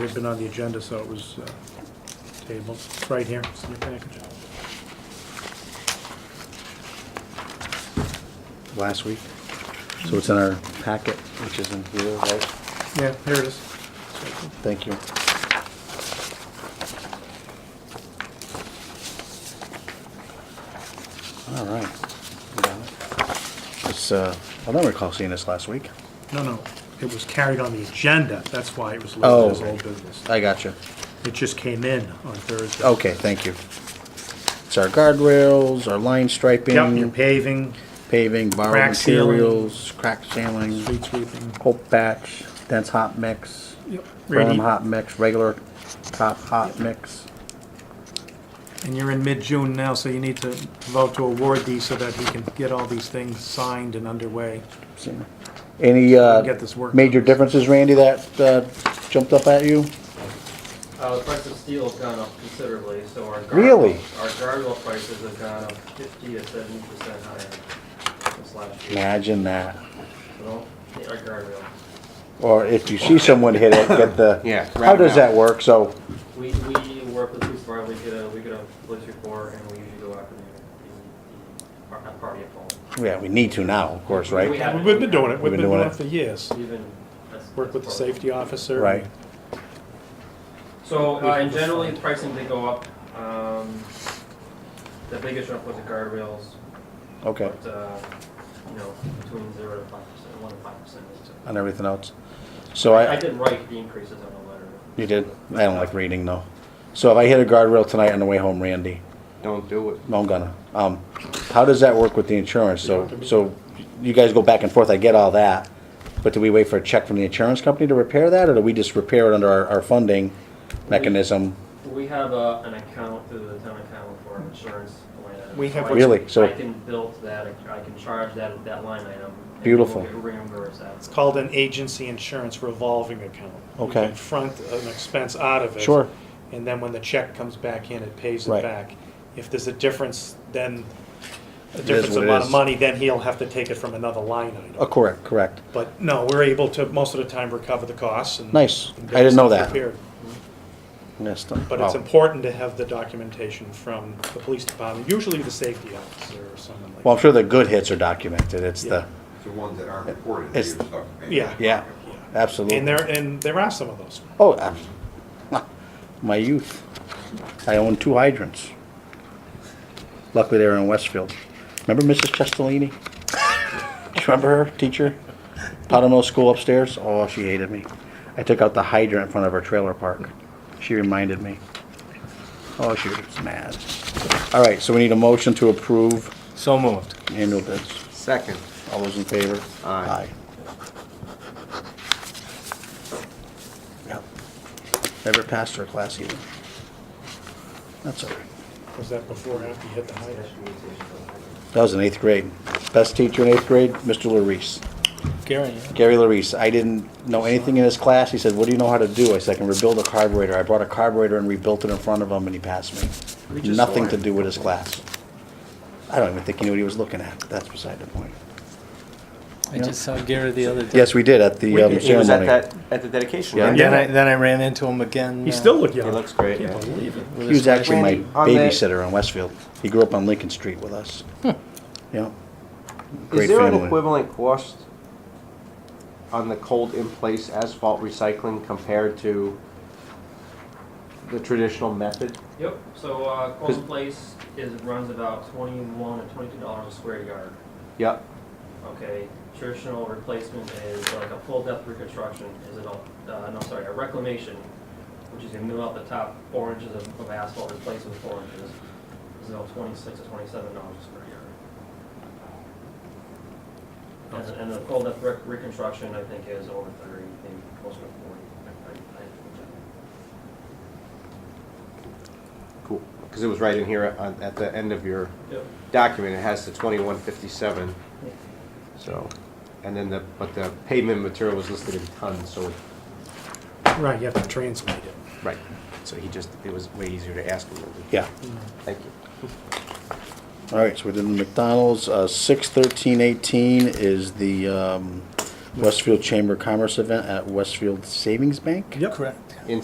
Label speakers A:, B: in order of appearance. A: It's been on the agenda, so it was uh, tabled. It's right here, it's in your package.
B: last week. So it's in our packet, which is in here, right?
A: Yeah, here it is.
B: Thank you. All right. It's, uh, I don't recall seeing this last week.
A: No, no, it was carried on the agenda, that's why it was
B: Oh.
A: listed as old business.
B: I got you.
A: It just came in on Thursday.
B: Okay, thank you. It's our guardrails, our
A: Yep,
B: line
A: your
B: striping,
A: paving,
B: paving, borrowed
A: Crack sealing.
B: materials, crack sealing,
A: street sweeping.
B: hope patch, dense hot mix,
A: Yep.
B: firm
A: Ready,
B: hot mix, regular top hot mix.
A: and you're in mid-June now, so you need to vote to award these so that we can get all these things signed and underway.
B: Any
A: Get
B: uh,
A: this work.
B: major differences, Randy, that uh, jumped up at you?
C: Uh, the price of steel has gone up considerably, so our guard.
B: Really?
C: Our guardrail prices have gone up fifty to seventy percent higher this last year.
B: Imagine that.
C: You know, our guardrail.
B: Or if you see someone hit it, get the.
D: Yeah,
B: How does
D: roundabout.
B: that work? So,
C: We, we work with police department, we get a, we get a police report, and we usually go after the, the, the par- uh, party at fault.
B: yeah, we need to now, of course,
C: We
B: right?
C: have-
A: We've been doing it, we've
B: We've been
A: been doing
B: doing
A: it for
B: it.
A: years.
C: Even. that's-
A: Work with the
C: that's part of it.
A: safety officer.
B: Right.
C: So,
A: We
C: uh, and
A: have a
C: generally,
A: fund.
C: pricing did go up. Um, the biggest jump was the guardrails,
B: Okay.
C: but, uh, you know, between zero to five percent, one to five percent is typical.
B: On everything else. So
C: I
B: I,
C: did write the increases on the letter.
B: you did. I don't like reading though. So if I hit a guardrail tonight on the way home, Randy,
D: Don't do it.
B: no, I'm gonna. Um, how does that work with the insurance? So, so you guys go back and forth. I get all that. But do we wait for a check from the insurance company to repair that or do we just repair it under our, our funding mechanism?
C: We have uh, an account through the town account for our insurance line item.
A: We have
C: So I
A: what-
B: Really?
C: can-
B: So-
C: I can build that, I can charge that, that line item. and
B: Beautiful.
C: we'll Reimburse that.
A: It's called an agency insurance revolving account.
B: Okay.
A: You can front an expense out of it.
B: Sure.
A: And then when the check comes back in, it pays it
B: Right.
A: back. If there's a difference, then, a
B: is
A: difference
B: what it
A: amount of
B: is.
A: money, then he'll have to take it from another line item.
B: Oh, correct, correct.
A: But no, we're able to, most of the time, recover the costs and.
B: Nice.
A: and get
B: I didn't know
A: ourselves
B: that.
A: repaired.
B: Missed
A: But it's important to have the documentation from the police department, usually the safety officer or someone like.
B: Well, I'm sure the good hits are documented. It's the,
E: The ones that aren't reported.
B: It's-
E: you're stuck paying.
A: Yeah.
B: yeah,
A: that.
B: absolutely.
A: And there, and there are some of those.
B: Oh, ab- my youth. I own two hydrants. Luckily, they were in Westfield. Remember Mrs. Chestellini? Do you remember her, teacher? Powder Mill School upstairs? Oh, she hated me. I took out the hydrant in front of her trailer park. She reminded me. Oh, she was mad. All right, so we need a motion to approve
D: So moved.
B: annual bids.
D: Second.
B: All those in favor? Aye.
D: Aye.
B: Yep. Never passed her class either. That's all right.
A: Was that before or after you hit the height?
B: That was in eighth grade. Best teacher in eighth grade, Mr. Larice.
A: Gary.
B: Gary Larice. I didn't know anything in his class. He said, what do you know how to do? I said, I can rebuild a carburetor. I brought a carburetor and rebuilt it in front of him and he passed me.
D: We just
B: Nothing
D: saw
B: to
D: him.
B: do with his class. I don't even think he knew what he was looking at. That's beside the point.
F: I just saw Gary the other day.
B: Yes, we did at the um, ceremony.
D: He was at that, at the dedication,
B: Yeah.
D: right?
F: Then I, then I ran into him again.
A: He
F: uh,
A: still looked young.
D: He looks great,
A: Can't
D: yeah.
A: believe it.
F: with
B: He was
F: his wife.
B: actually my
D: Randy, on the- Hmm.
B: babysitter on Westfield. He grew up on Lincoln Street with us. Yeah.
D: Is
B: Great
D: there an
B: family.
D: equivalent cost on the cold in place asphalt recycling compared to the traditional method?
C: Yep, so uh,
D: Cause-
C: Colton Place is, runs about twenty-one or twenty-two dollars a square yard,
D: Yep,
C: okay? Traditional replacement is like a full depth reconstruction is an, al- uh, no, sorry, a reclamation, which is gonna mill out the top four inches of of asphalt, replace it with four inches, is about twenty-six to twenty-seven dollars a square yard. And the- And the full depth rec- reconstruction, I think, is over thirty, maybe closer to forty. I- I- I-
D: cool. Because it was right in here on, at the end of your
C: Yep.
D: document. It has the twenty-one fifty-seven, so, and then the, but the pavement material was listed in tons, so,
A: Right, you have to translate it.
D: right. So he just, it was way easier to ask him. than to-
B: Yeah.
D: Thank you.
B: All right, so we did the McDonald's. Uh, six thirteen eighteen is the, um, Westfield Chamber of Commerce event at Westfield Savings Bank?
A: Yep.
F: Correct.